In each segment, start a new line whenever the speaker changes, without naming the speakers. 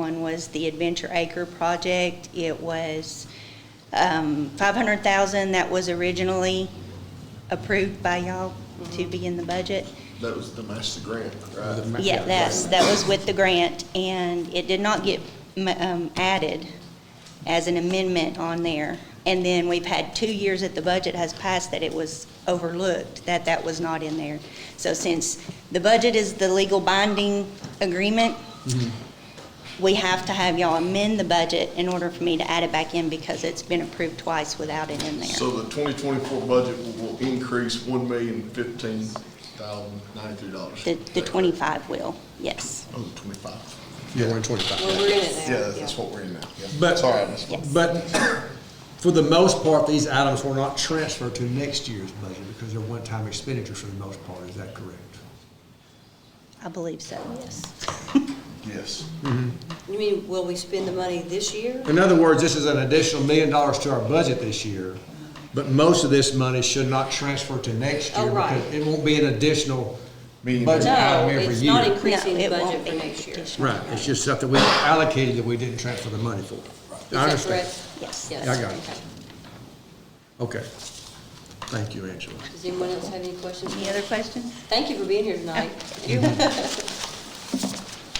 was the Adventure Acre project. It was um, 500,000 that was originally approved by y'all to be in the budget.
That was the master grant, right?
Yeah, that's, that was with the grant, and it did not get m- um, added as an amendment on there. And then we've had two years that the budget has passed that it was overlooked, that that was not in there. So since the budget is the legal binding agreement, we have to have y'all amend the budget in order for me to add it back in because it's been approved twice without it in there.
So the twenty twenty-four budget will will increase one million fifteen thousand ninety-three dollars.
The, the 25 will, yes.
Oh, the twenty-five.
Yeah, we're in twenty-five.
Well, we're in it now.
Yeah, that's what we're in now. Yeah.
But-
Sorry, I missed it.
But for the most part, these items were not transferred to next year's budget because they're one-time expenditures for the most part. Is that correct?
I believe so, yes.
Yes.
You mean, will we spend the money this year?
In other words, this is an additional million dollars to our budget this year, but most of this money should not transfer to next
Oh,
year
right.
because it won't be an additional
Meaning-
budget
No,
item every
it's not
year.
increasing
No,
the
it won't
budget for
be
next year.
additional.
Right, it's just stuff that we allocated that we didn't transfer the money for.
Is
I
that
understand.
correct?
Yes.
Yes.
I got it.
Okay.
Okay. Thank you, Angela.
Does anyone else have any questions?
Any other questions?
Thank you for being here tonight.
Mm-hmm.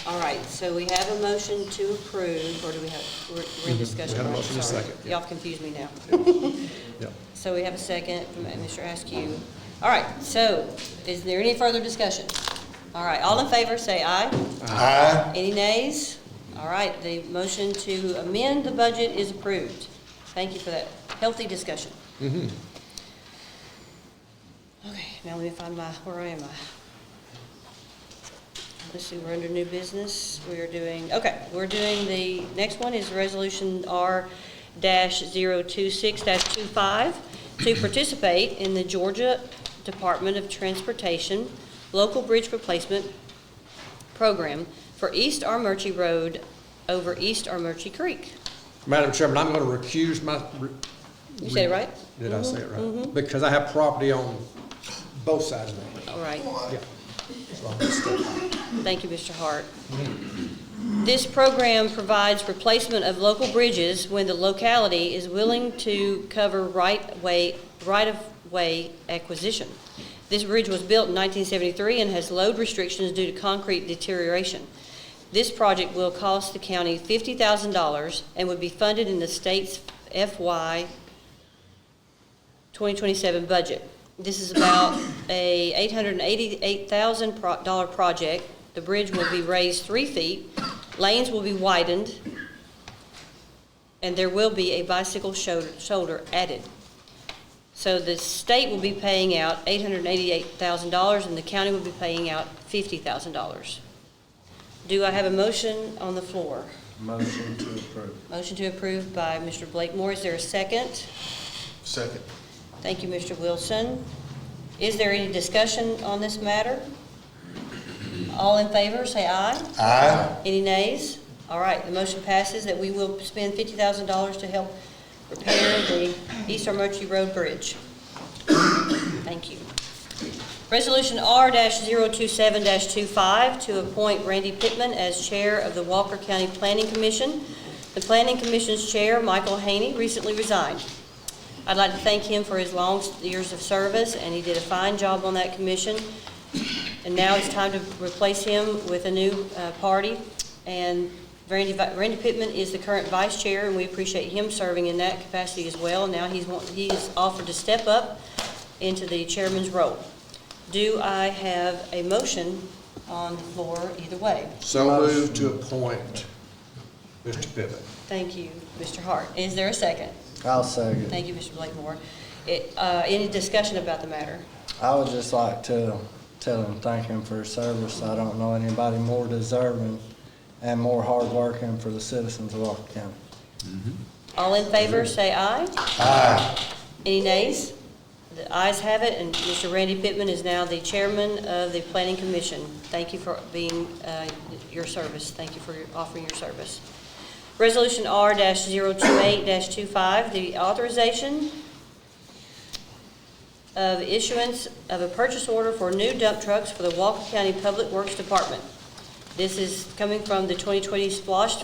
All right, so we have a motion to approve, or do we have, we're we're in
Mm-hmm. We
discussion?
had a
right?
motion and a
Sorry.
second, yeah.
Y'all confused me now.
Yep.
So we have a second from Mr. Askew. All right, so is there any further discussion? All right, all in favor, say aye. Aye. Any nays? All right, the motion to amend the budget is approved. Thank you for that healthy discussion. Okay, now let me find my, where am I? Let's see, we're under new business. We are doing, okay, we're doing the, next one is Resolution R dash zero two six dash two five to participate in the Georgia Department of Transportation Local Bridge Replacement Program for East Armurchie Road over East Armurchie Creek.
Madam Chairman, I'm going to recuse my.
You said it right?
Did I say it right? Because I have property on both sides of it.
All right.
Yeah.
Thank you, Mr. Hart. This program provides replacement of local bridges when the locality is willing to cover right-way, right-of-way acquisition. This bridge was built in 1973 and has load restrictions due to concrete deterioration. This project will cost the county $50,000 and would be funded in the state's FY 2027 budget. This is about a $888,000 pro- dollar project. The bridge will be raised three feet, lanes will be widened, and there will be a bicycle shoulder- shoulder added. So the state will be paying out $888,000, and the county will be paying out $50,000. Do I have a motion on the floor?
Motion to approve.
Motion to approve by Mr. Blakemore. Is there a second?
Second.
Thank you, Mr. Wilson. Is there any discussion on this matter? All in favor, say aye. Aye. Any nays? All right, the motion passes that we will spend fifty thousand dollars to help repair the East Armurchie Road Bridge. Thank you. Resolution R-027-25 to appoint Randy Pittman as Chair of the Walker County Planning Commission. The Planning Commission's Chair, Michael Haney, recently resigned. I'd like to thank him for his long years of service, and he did a fine job on that commission. And now it's time to replace him with a new uh, party. And Randy Vi- Randy Pittman is the current vice chair, and we appreciate him serving in that capacity as well. Now he's, want- he is offered to step up into the chairman's role. Do I have a motion on the floor either way?
So moved to appoint Mr. Pivot.
Thank you, Mr. Hart. Is there a second?
I'll second.
Thank you, Mr. Blakemore. It, uh, Any discussion about the matter?
I would just like to tell him, thank him for his service. I don't know anybody more deserving and more hardworking for the citizens of Walker County.
All in favor, say aye. Aye. Any nays? The ayes have it, and Mr. Randy Pittman is now the chairman of the Planning Commission. Thank you for being, uh, your service, thank you for your- offering your service. Resolution R-028-25, the authorization of issuance of a purchase order for new dump trucks for the Walker County Public Works Department. This is coming from the 2020 Splosh